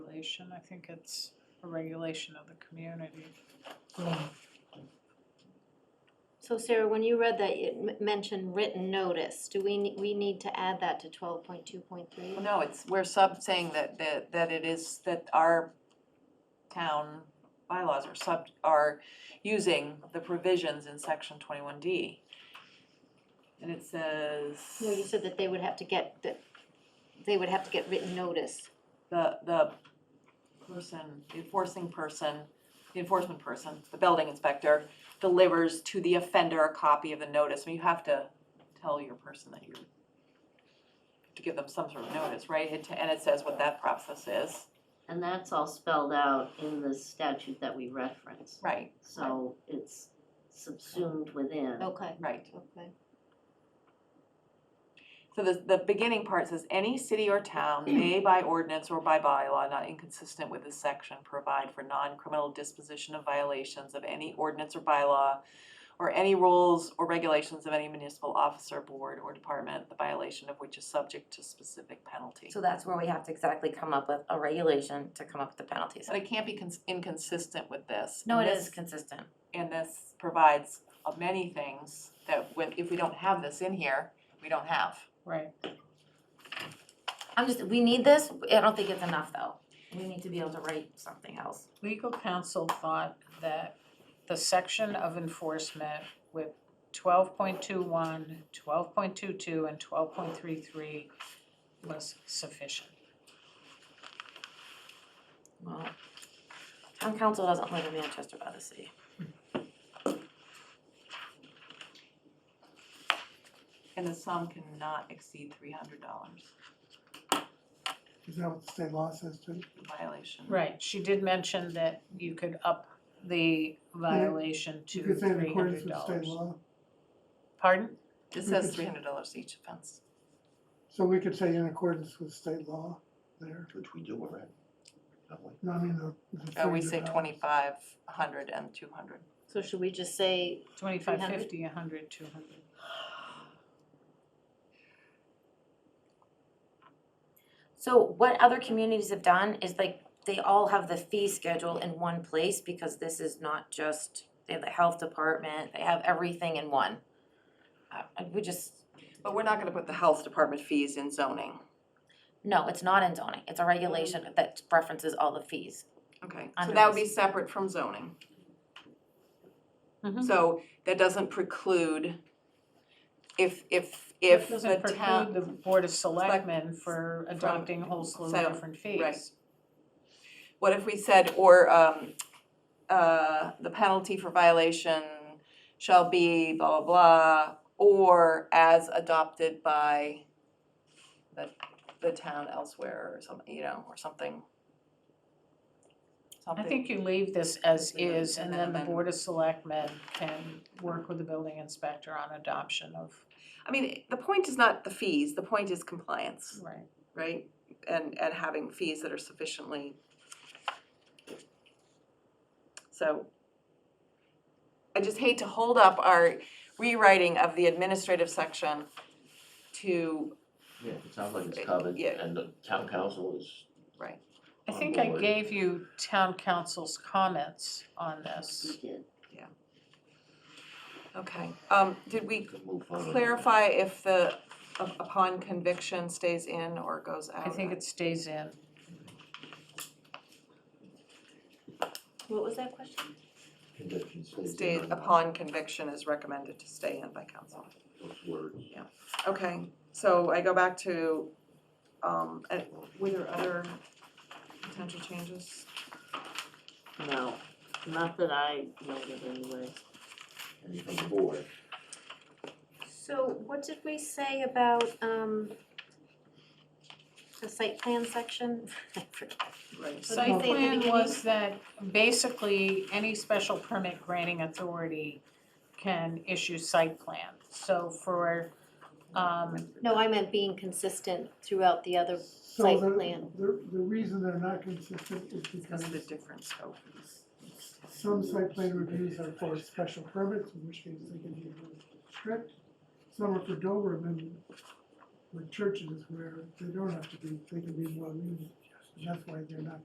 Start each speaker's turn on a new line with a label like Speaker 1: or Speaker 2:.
Speaker 1: regulation, I think it's a regulation of the community.
Speaker 2: So Sarah, when you read that, it m- mentioned written notice, do we, ne- we need to add that to twelve point two point three?
Speaker 3: Well, No, it's, we're sub saying that, that, that it is, that our town bylaws are sub, are using the provisions in section twenty-one D. And it says,
Speaker 2: No, you said that they would have to get, that they would have to get written notice.
Speaker 3: the, the person, the enforcing person, the enforcement person, the building inspector, delivers to the offender a copy of the notice, I mean, you have to tell your person that you're, to give them some sort of notice, right, It- and it says what that process is.
Speaker 4: And that's all spelled out in the statute that we referenced.
Speaker 3: Right.
Speaker 4: So it's subsumed within.
Speaker 2: Okay,
Speaker 3: Right,
Speaker 2: okay.
Speaker 3: so the, the beginning part says, any city or town
Speaker 5: Mm.
Speaker 3: may by ordinance or by bylaw not inconsistent with this section provide for non-criminal disposition of violations of any ordinance or bylaw or any rules or regulations of any municipal officer, board, or department, the violation of which is subject to specific penalty.
Speaker 5: So that's where we have to exactly come up with a regulation to come up with the penalties.
Speaker 3: But it can't be cons- inconsistent with this.
Speaker 5: No, it
Speaker 3: and
Speaker 5: is
Speaker 3: this-
Speaker 5: consistent.
Speaker 3: And this provides of many things that when, if we don't have this in here, we don't have.
Speaker 1: Right.
Speaker 5: I'm just, we need this, I don't think it's enough though. We need to be able to write something else.
Speaker 1: Legal counsel thought that the section of enforcement with 12.21, 12.22, and 12.33 was sufficient.
Speaker 5: Well, town council doesn't live in Manchester by the sea.
Speaker 3: And the sum cannot exceed three hundred dollars
Speaker 6: Is that what the state law says too?
Speaker 3: violation.
Speaker 1: Right, she did mention that you could up the violation to
Speaker 6: You
Speaker 1: $300.
Speaker 6: could say in accordance with state law,
Speaker 1: Pardon?
Speaker 3: It says three hundred dollars each offense.
Speaker 6: so we could say in accordance with state law there,
Speaker 7: Which we do already. don't we?
Speaker 6: no, I mean, the. the
Speaker 3: Uh, we say
Speaker 6: $300.
Speaker 3: twenty-five, a hundred, and two hundred.
Speaker 2: So should we just say,
Speaker 1: 25,
Speaker 2: 300?
Speaker 1: 50, 100, 200.
Speaker 5: So what other communities have done is like, they all have the fee schedule in one place because this is not just, they have the health department, they have everything in one. Uh, we just,
Speaker 3: But we're not gonna put the health department fees in zoning.
Speaker 5: no, it's not in zoning, it's a regulation that references all the fees.
Speaker 3: Okay, so
Speaker 5: Under
Speaker 3: that would be
Speaker 5: this.
Speaker 3: separate from zoning.
Speaker 1: Mhm.
Speaker 3: So that doesn't preclude if, if,
Speaker 1: It
Speaker 3: if the
Speaker 1: Doesn't preclude
Speaker 3: town,
Speaker 1: the Board of Selectmen for
Speaker 3: from-
Speaker 1: adopting a whole slew
Speaker 3: so,
Speaker 1: of different fees.
Speaker 3: right. what if we said, or, um, uh, the penalty for violation shall be blah, blah, blah, or as adopted by the, the town elsewhere or something, you know, or something.
Speaker 1: I
Speaker 3: Something.
Speaker 1: think you leave this as
Speaker 3: Leave it
Speaker 1: is, and
Speaker 3: and
Speaker 1: then
Speaker 3: then
Speaker 1: the
Speaker 3: amend.
Speaker 1: Board of Selectmen can work with the building inspector on adoption of,
Speaker 3: I mean, the point is not the fees, the point is compliance,
Speaker 1: right,
Speaker 3: right? And, and having fees that are sufficiently. So I just hate to hold up our rewriting of the administrative section to,
Speaker 7: Yeah, it sounds like it's covered,
Speaker 3: Yeah.
Speaker 7: and the town council is,
Speaker 1: I
Speaker 7: On
Speaker 1: think I
Speaker 7: board.
Speaker 1: gave you town council's comments on this.
Speaker 4: We did.
Speaker 3: okay. Um, did we
Speaker 7: could move forward.
Speaker 3: clarify if the up- upon conviction stays in or goes out?
Speaker 1: I think it stays in.
Speaker 2: what was that question?
Speaker 7: Condition stays.
Speaker 3: Stays,
Speaker 7: in on
Speaker 3: upon conviction is recommended to stay in by council.
Speaker 7: Those words.
Speaker 3: Okay, so I go back to, um, uh, were there other potential changes?
Speaker 4: No, not that I noted anyway.
Speaker 7: And from the board,
Speaker 2: So what did we say about, um, the site plan section? I forget.
Speaker 3: Right.
Speaker 2: What did
Speaker 1: Site
Speaker 2: I say at the
Speaker 1: plan
Speaker 2: beginning?
Speaker 1: was that basically any special permit granting authority can issue site plan. So for, um,
Speaker 2: No, I meant being consistent throughout the other,
Speaker 6: So
Speaker 2: site
Speaker 6: the-
Speaker 2: plan.
Speaker 6: The, the reason they're not consistent is
Speaker 3: Because
Speaker 6: because
Speaker 3: of the different scope.
Speaker 6: some site plan reviews are for special permits, in which case they can be really strict. Some are for Dover, and then with churches where they don't have to be, they can be more lenient, and that's why they're not